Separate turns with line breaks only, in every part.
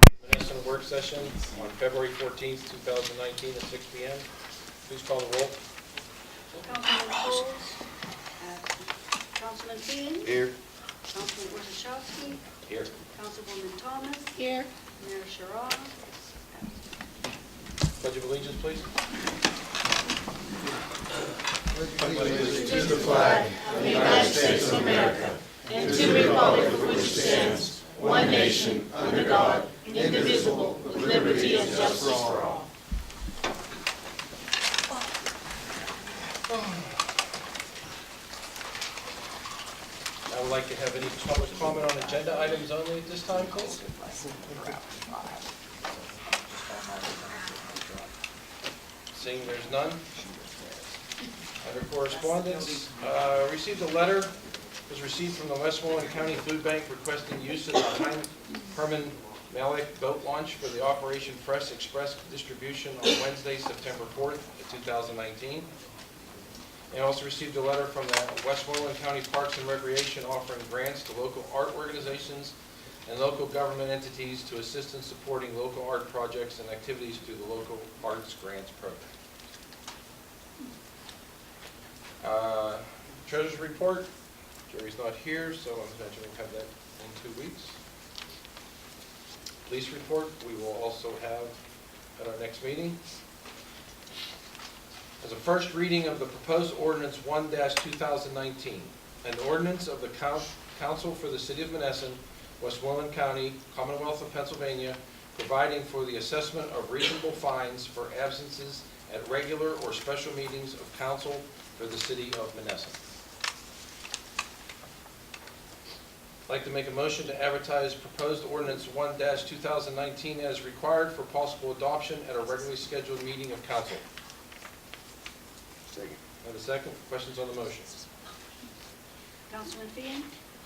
public work session on February 14th, 2019 at 6 PM. Please call the roll.
Councilman Bowles. Councilman Dean.
Here.
Councilman Orzachowski.
Here.
Councilwoman Thomas.
Here.
Mayor Sherrod.
Pledge of allegiance, please. I would like to have any public comment on agenda items only at this time, please. Seeing there's none. Under correspondence, uh, received a letter, was received from the Westmoreland County Food Bank requesting use of the Heim- Herman Malik boat launch for the Operation Fresh Express distribution on Wednesday, September 4th, of 2019. And also received a letter from the Westmoreland County Parks and Recreation offering grants to local art organizations and local government entities to assist in supporting local art projects and activities through the Local Arts Grants Program. Uh, Treasurers' report, Jerry's not here, so I'm imagining we'll have that in two weeks. Police report, we will also have at our next meeting as a first reading of the proposed ordinance one two thousand nineteen, an ordinance of the coun- council for the city of Monessen, Westmoreland County, Commonwealth of Pennsylvania, providing for the assessment of reasonable fines for absences at regular or special meetings of council for the city of Monessen. I'd like to make a motion to advertise proposed ordinance one two thousand nineteen as required for possible adoption at a regularly scheduled meeting of council.
Second.
Have a second? Questions on the motion?
Councilman Dean.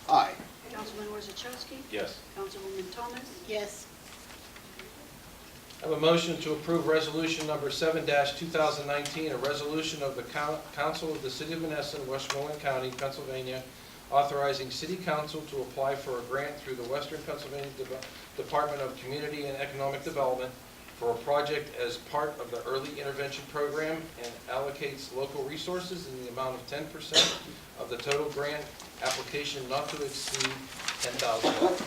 Aye.
Councilman Orzachowski.
Yes.
Councilwoman Thomas.
Yes.
I have a motion to approve resolution number seven two thousand nineteen, a resolution of the coun- council of the city of Monessen, Westmoreland County, Pennsylvania, authorizing city council to apply for a grant through the Western Pennsylvania Deve- Department of Community and Economic Development for a project as part of the early intervention program and allocates local resources in the amount of ten percent of the total grant application not to exceed ten thousand dollars.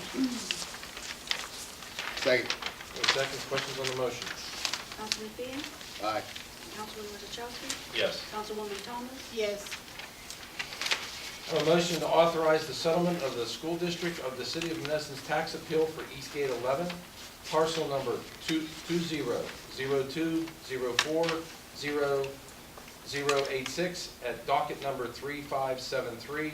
Second.
Any seconds, questions on the motion?
Councilman Dean.
Aye.
Councilman Orzachowski.
Yes.
Councilwoman Thomas.
Yes.
I have a motion to authorize the settlement of the school district of the city of Menneson's tax appeal for Eastgate 11, parcel number 2002040086 at docket number 3573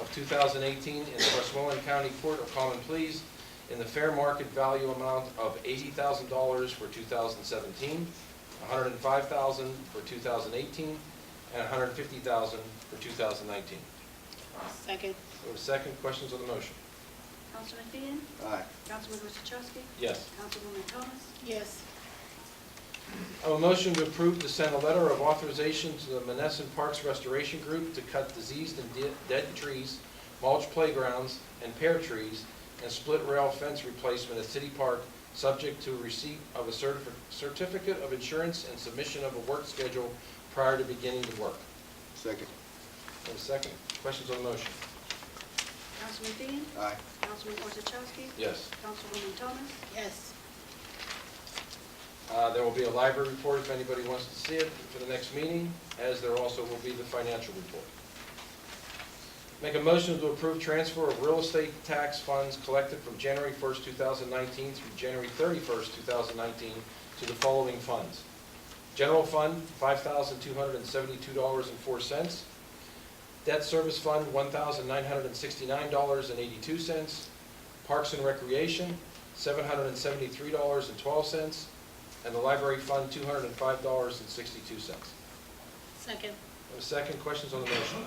of 2018 in the Westmoreland County Court of Common Pleas in the fair market value amount of $80,000 for 2017, $105,000 for 2018, and $150,000 for 2019.
Second.
We have a second, questions on the motion?
Councilman Dean.
Aye.
Councilman Orzachowski.
Yes.
Councilwoman Thomas.
Yes.
I have a motion to approve to send a letter of authorization to the Monessen Parks Restoration Group to cut diseased and de- dead trees, mulch playgrounds, and pear trees, and split rail fence replacement at City Park, subject to receipt of a certif- certificate of insurance and submission of a work schedule prior to beginning the work.
Second.
We have a second, questions on the motion?
Councilman Dean.
Aye.
Councilman Orzachowski.
Yes.
Councilwoman Thomas.
Yes.
Uh, There will be a library report if anybody wants to see it for the next meeting, as there also will be the financial report. Make a motion to approve transfer of real estate tax funds collected from January 1st, 2019 through January 31st, 2019 to the following funds. General Fund, $5,272.04. Debt Service Fund, $1,969.82. Parks and Recreation, $773.12 and the library fund, two hundred and five dollars and sixty-two cents.
Second.
Second, questions on the motion?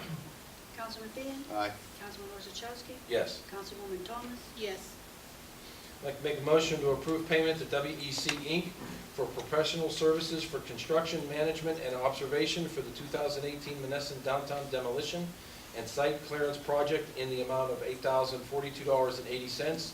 Councilman Dean.
Aye.
Councilman Orzachowski.
Yes.
Councilwoman Thomas.
Yes.
I'd like to make a motion to approve payment to WEC Inc. for professional services for construction, management, and observation for the two thousand eighteen Menneson downtown demolition and site clearance project in the amount of eight thousand forty-two dollars and eighty cents